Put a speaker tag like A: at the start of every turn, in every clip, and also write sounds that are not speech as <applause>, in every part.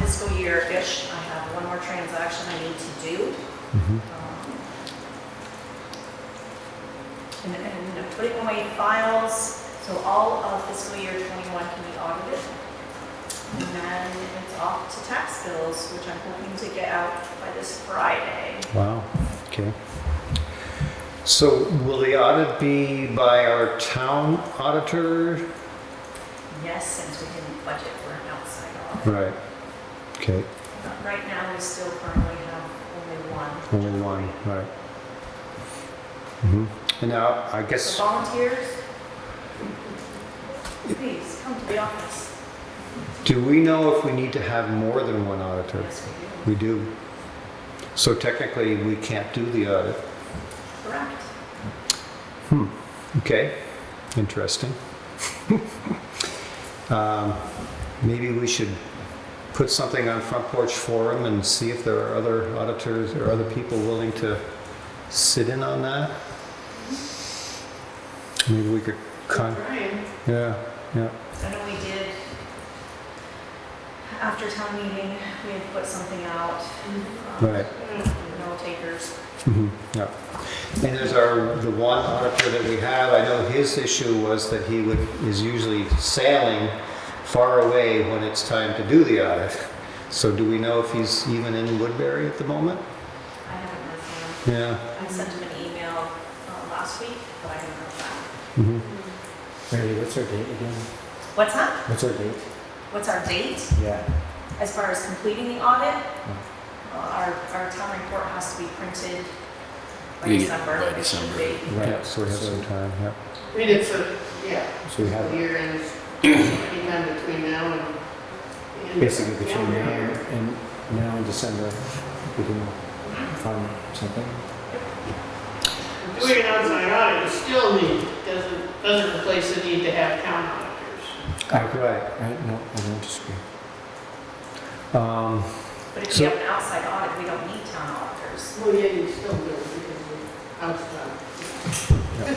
A: fiscal year-ish, I have one more transaction I need to do. Um,
B: Mhm.
A: And then putting away files, so all of fiscal year 21 can be audited. And then it's off to tax bills, which I'm hoping to get out by this Friday.
B: Wow, okay. So will the audit be by our town auditor?
A: Yes, since we didn't budget for an outside audit.
B: Right, okay,
A: But Right now, we still currently have only one.
B: only one, right. Mhm. And now, I
A: So
B: guess,
A: Volunteers? Please, come to the office.
B: do we know if we need to have more than one auditor?
A: Yes, we
B: We do. So technically, we can't do the audit.
A: do. Correct.
B: Hmm, okay, interesting. <laughs> Um, Maybe we should put something on Front Porch Forum and see if there are other auditors or other people willing to sit in on that? Maybe we could con,
A: Brian,
B: yeah, yeah,
A: I know we did, after town meeting, we had put something out. um,
B: Right.
A: No takers.
B: mhm, yeah. And there's our, the one auditor that we have, I know his issue was that he would, is usually sailing far away when it's time to do the audit. So do we know if he's even in Woodbury at the moment?
A: I haven't heard from
B: Yeah.
A: him. I sent him an email uh, last week, but I haven't heard back.
B: mhm.
C: Randy, what's our date again?
A: What's that?
C: What's our date?
A: What's our date
C: Yeah.
A: as far as completing the audit? Well, Our, our town report has to be printed by
D: Yeah,
A: December.
D: by
A: It should
D: December.
A: be.
B: Yeah, so we have some time, yeah.
E: I mean, it's a, yeah,
C: So we have
E: year ends anytime between now and. and-
C: basically between now
E: Yeah.
C: and and now and December, we can find something.
E: Doing an outside audit, you still need, doesn't, doesn't replace the need to have town auditors.
B: Right.
C: Right? No, I don't disagree.
B: Um,
A: But if
B: So-
A: you have an outside audit, we don't need town auditors.
E: Well, yeah, you still do, because we're outside.
B: right.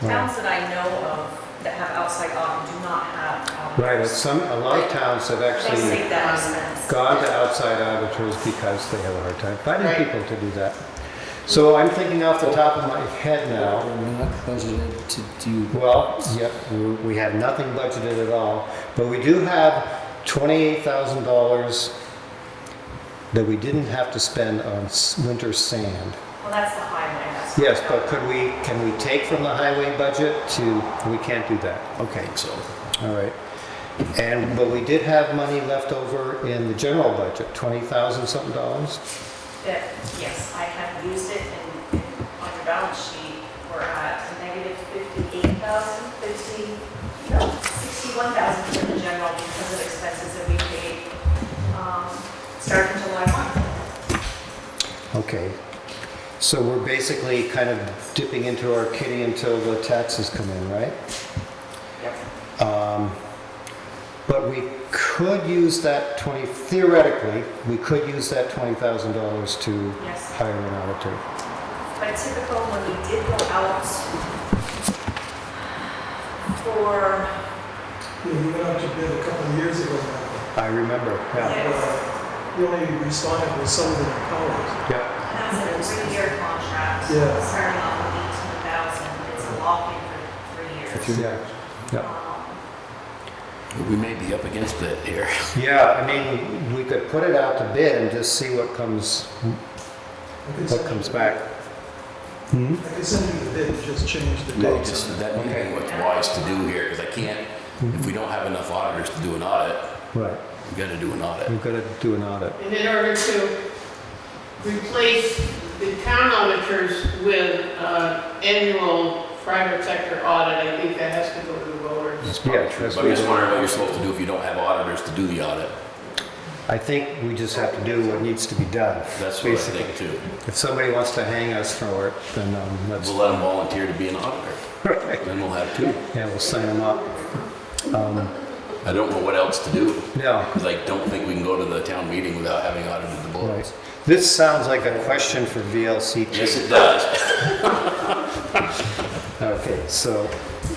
A: Towns that I know of that have outside audit do not have
B: Right, but
A: auditors.
B: some, a lot of towns have
A: They
B: actually
A: save that expense.
B: gone to outside auditors because they have a hard time finding
E: Right.
B: people to do that. So I'm thinking off the top of my head now,
C: We're not budgeted to do.
B: Well, yep, we- we have nothing budgeted at all, but we do have $28,000 that we didn't have to spend on s- winter sand.
A: Well, that's the highway, that's.
B: Yes, but could we, can we take from the highway budget to, we can't do that. Okay,
D: think so.
B: all right. And, but we did have money left over in the general budget, 20,000 something dollars?
A: That, yes, I have used it and on your balance sheet, we're at a negative 58,000, 50, no, 61,000 in the general because of expenses that we paid, um, starting July 1.
B: Okay. So we're basically kind of dipping into our kitty until the taxes come in, right? Um, But we could use that 20, theoretically, we could use that $20,000 to
A: Yes.
B: hire an auditor.
A: But typical, when we did go out for,
F: Yeah, we went out to bid a couple of years ago now.
B: I remember, yeah.
F: Uh, We only responded with some of the colors.
B: Yeah.
A: that's a three-year contract,
F: Yeah.
A: starting off with 18,000, it's a lock-in for three years.
C: If you-
B: Yeah. Yeah.
A: Um,
D: We may be up against that here.
B: Yeah, I mean, we could put it out to bid and just see what comes,
F: I could
B: what
F: send
B: comes
F: you-
B: back. Hmm?
F: I could send you the bid, just change the
D: That
F: dates.
D: just, that may be what's wise to do here, because I can't,
B: Mm-hmm.
D: if we don't have enough auditors to do an audit,
B: Right,
D: we gotta do an audit.
B: we've got to do an audit.
E: And in order to replace the town auditors with, uh, annual private sector audit, I think that has to go to the voters.
D: That's probably
B: Yeah,
D: true,
B: that's
D: but I'm just
B: what-
D: wondering what you're supposed to do if you don't have auditors to do the audit.
B: I think we just have to do what needs to be done.
D: That's what I
B: basically.
D: think too.
B: If somebody wants to hang us for it, then um, that's,
D: We'll let them volunteer to be an auditor, then we'll have two.
B: yeah, we'll sign them up. Um,
D: I don't know what else to do,
B: No,
D: because I don't think we can go to the town meeting without having audited the
B: Right.
D: books.
B: This sounds like a question for VLCT.
D: Yes, it does.
B: Okay, so,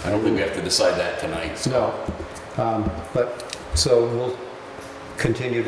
D: I don't think we have to decide that tonight, so.
B: no, Um, but, so we'll continue to